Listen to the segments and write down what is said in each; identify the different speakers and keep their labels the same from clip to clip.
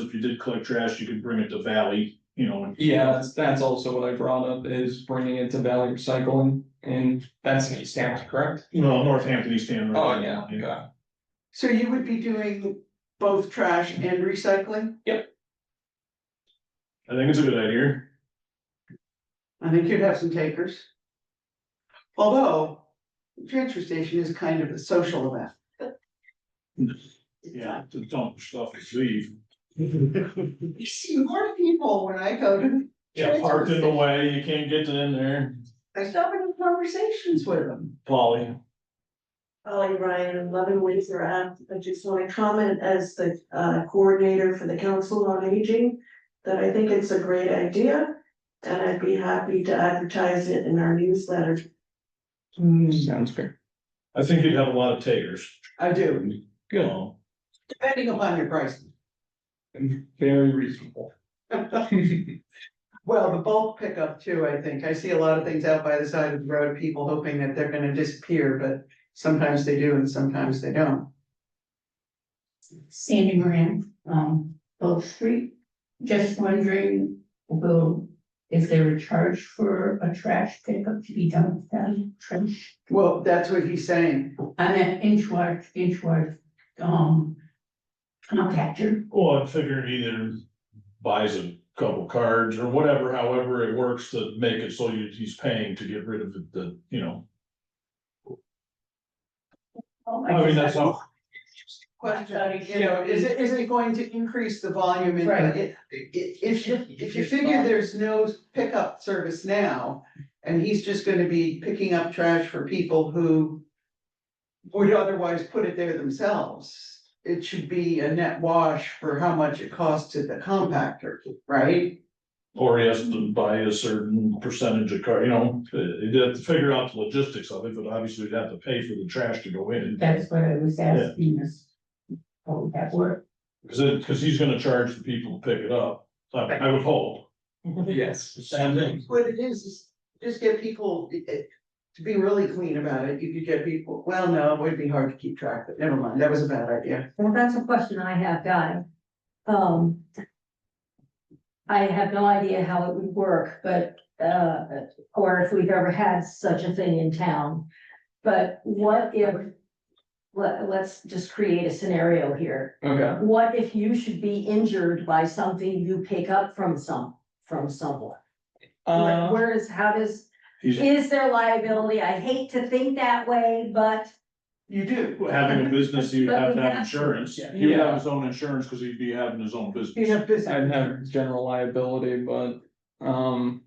Speaker 1: if you did collect trash, you could bring it to Valley, you know, and
Speaker 2: Yeah, that's, that's also what I brought up is bringing it to Valley Recycling and that's in East Hampton, correct?
Speaker 1: you know, Northampton, East Hampton.
Speaker 2: Oh, yeah, yeah.
Speaker 3: So you would be doing both trash and recycling?
Speaker 1: I think it's a good idea.
Speaker 3: I think you'd have some takers. Although, the transfer station is kind of a social event.
Speaker 1: Yeah, to dump stuff, and leave.
Speaker 3: You see more people when I go to,
Speaker 1: Yeah, parked in the way, you can't get in there,
Speaker 3: I stop and have conversations with them.
Speaker 1: Polly.
Speaker 4: Holly Ryan, and eleven Windsor Ave. I just want to comment as the uh, coordinator for the Council on Aging. That I think it's a great idea and I'd be happy to advertise it in our newsletter.
Speaker 2: Mm, Sounds fair.
Speaker 1: I think you'd have a lot of takers.
Speaker 3: I do,
Speaker 2: Good,
Speaker 1: Um,
Speaker 3: depending upon your price.
Speaker 2: very reasonable.
Speaker 3: Well, the bulk pickup too, I think. I see a lot of things out by the side of the road, people hoping that they're gonna disappear, but sometimes they do and sometimes they don't.
Speaker 5: Sandy Moran, um, Oak Street. Just wondering, will, is there a charge for a trash pickup to be done with that trash?
Speaker 3: Well, that's what he's saying.
Speaker 5: I'm at Inchworth, Inchworth, um, compactor.
Speaker 1: Well, I'm figuring either buys a couple cards or whatever, however it works to make it so you, he's paying to get rid of the- the, you know. I mean, that's all,
Speaker 3: Question, you know, is it, is it going to increase the volume in?
Speaker 5: Right.
Speaker 3: i- i- If, you- if you figure there's no pickup service now, and he's just gonna be picking up trash for people who would otherwise put it there themselves, it should be a net wash for how much it costs to the compactor, right?
Speaker 1: or he has to buy a certain percentage of car, you know, uh, you'd have to figure out the logistics of it, but obviously you'd have to pay for the trash to go in.
Speaker 5: That's what I was asking is, how would that work?
Speaker 1: Cause it, cause he's gonna charge the people to pick it up, I, I would hope.
Speaker 2: Yes.
Speaker 1: Same thing.
Speaker 3: What it is, is just get people, i- i- to be really clean about it, you could get people, well, no, it would be hard to keep track, but never mind, that was a bad idea.
Speaker 6: Well, that's a question I have, Guy. Um. I have no idea how it would work, but, uh, or if we've ever had such a thing in town. But what if, let, let's just create a scenario here.
Speaker 2: Okay,
Speaker 6: What if you should be injured by something you pick up from some, from someone?
Speaker 2: uh,
Speaker 6: Like, Where is, how does,
Speaker 1: He's
Speaker 6: is there liability? I hate to think that way, but
Speaker 3: You do.
Speaker 1: having a business, he would have to have insurance,
Speaker 2: Yeah.
Speaker 1: he would have his own insurance, cause he'd be having his own business.
Speaker 3: You have business.
Speaker 2: I'd have general liability, but, um.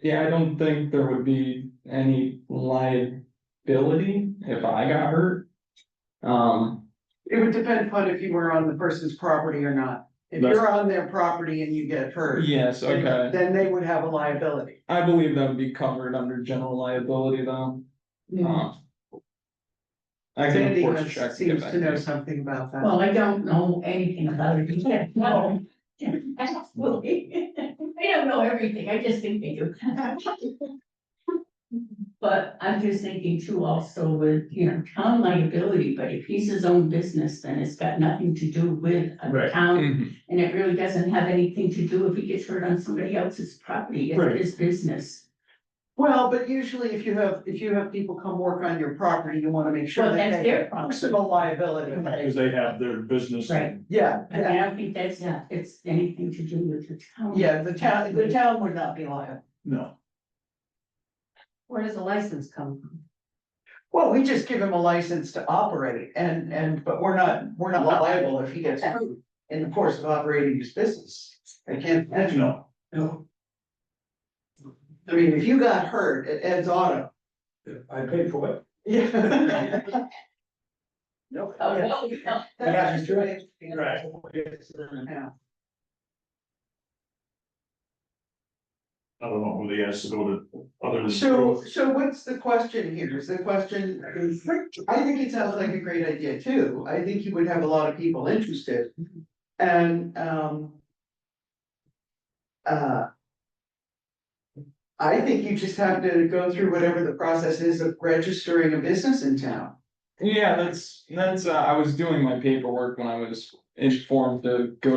Speaker 2: Yeah, I don't think there would be any liability if I got hurt. Um,
Speaker 3: It would depend upon if you were on the person's property or not. If
Speaker 1: That's-
Speaker 3: you're on their property and you get hurt.
Speaker 2: yes, okay.
Speaker 3: Then they would have a liability.
Speaker 2: I believe that would be covered under general liability though. Uh, I can of
Speaker 3: Sandy
Speaker 2: course
Speaker 3: has-
Speaker 2: check. to get
Speaker 3: seems
Speaker 2: back
Speaker 3: to know
Speaker 2: you.
Speaker 3: something about that.
Speaker 5: Well, I don't know anything about it. You can't know. Absolutely. I don't know everything. I just think they do. But I'm just thinking too also with, you know, town liability, but if he's his own business, then it's got nothing to do with
Speaker 1: Right.
Speaker 5: a town.
Speaker 2: Mhm.
Speaker 5: And it really doesn't have anything to do if he gets hurt on somebody else's property.
Speaker 1: Right.
Speaker 5: It's his business.
Speaker 3: Well, but usually if you have, if you have people come work on your property, you wanna make sure
Speaker 5: Well,
Speaker 3: that
Speaker 5: that's
Speaker 3: they
Speaker 5: their
Speaker 3: have
Speaker 5: problem.
Speaker 3: personal liability.
Speaker 1: Cause they have their business.
Speaker 5: Right.
Speaker 3: Yeah,
Speaker 5: I mean,
Speaker 3: yeah,
Speaker 5: I don't think that's, it's anything to do with the town.
Speaker 3: yeah, the town, the town would not be liable.
Speaker 1: No,
Speaker 6: where does the license come from?
Speaker 3: Well, we just give him a license to operate and, and, but we're not, we're not liable if he gets hurt in the course of operating his business. I can't imagine.
Speaker 1: no,
Speaker 3: No. I mean, if you got hurt at Ed's Auto.
Speaker 7: I paid for it.
Speaker 3: Yeah. No.
Speaker 5: Oh, no, no.
Speaker 3: That's just right.
Speaker 1: Right.
Speaker 3: Yeah.
Speaker 1: I don't know who they asked to go to, other than.
Speaker 3: So, so what's the question here? Is the question, I think it sounds like a great idea too. I think you would have a lot of people interested. And, um. Uh. I think you just have to go through whatever the process is of registering a business in town.
Speaker 2: Yeah, that's, that's, uh, I was doing my paperwork when I was informed to go